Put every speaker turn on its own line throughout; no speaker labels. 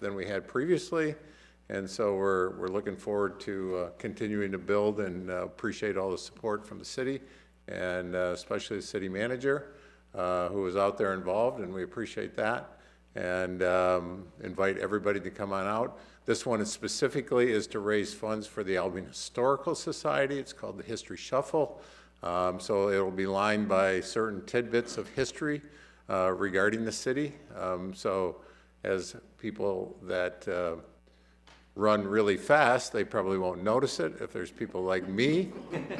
than we had previously. And so we're, we're looking forward to uh, continuing to build and uh, appreciate all the support from the city and uh, especially the city manager uh, who was out there involved, and we appreciate that. And um, invite everybody to come on out. This one is specifically is to raise funds for the Albion Historical Society. It's called the History Shuffle. Um, So it'll be lined by certain tidbits of history uh, regarding the city. Um, So as people that uh, run really fast, they probably won't notice it. If there's people like me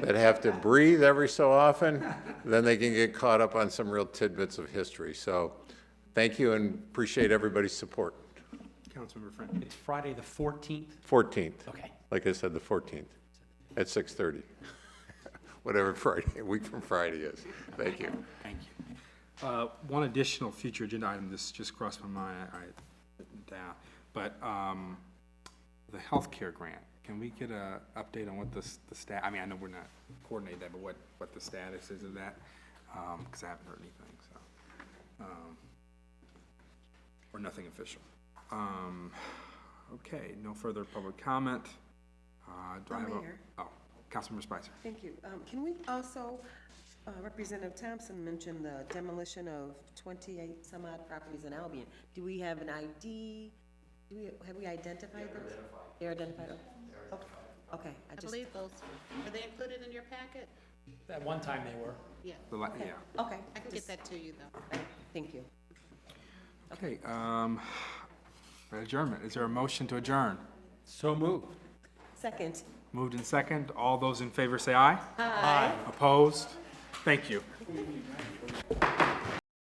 that have to breathe every so often, then they can get caught up on some real tidbits of history. So thank you and appreciate everybody's support.
Councilmember Friend.
It's Friday, the 14th?
14th.
Okay.
Like I said, the 14th at 6:30. Whatever Friday, week from Friday is. Thank you.
Thank you.
Uh, One additional future agenda item, this just crossed my mind, I, I- down, but um, the healthcare grant, can we get a update on what the, s- the stat, I mean, I know we're not coordinating that, but what, what the status is of that? Because I haven't heard anything, so. um, Or nothing official. Um, Okay, no further public comment. Uh, Do I have a?
Mayor.
Oh, Councilmember Spicer.
Thank you. Um, Can we also, uh, Representative Thompson mentioned the demolition of 28 some odd properties in Albion. Do we have an ID? Do we, have we identified those? They're identified. Okay. Okay, I
I
just,
believe those, are they included in your packet?
At one time they were.
Yeah,
The la- Yeah.
okay,
I can get that to you, though.
thank you.
Okay, um, adjournment, is there a motion to adjourn?
So moved.
Second.
Moved and second, all those in favor say aye. Aye. Opposed? Thank you.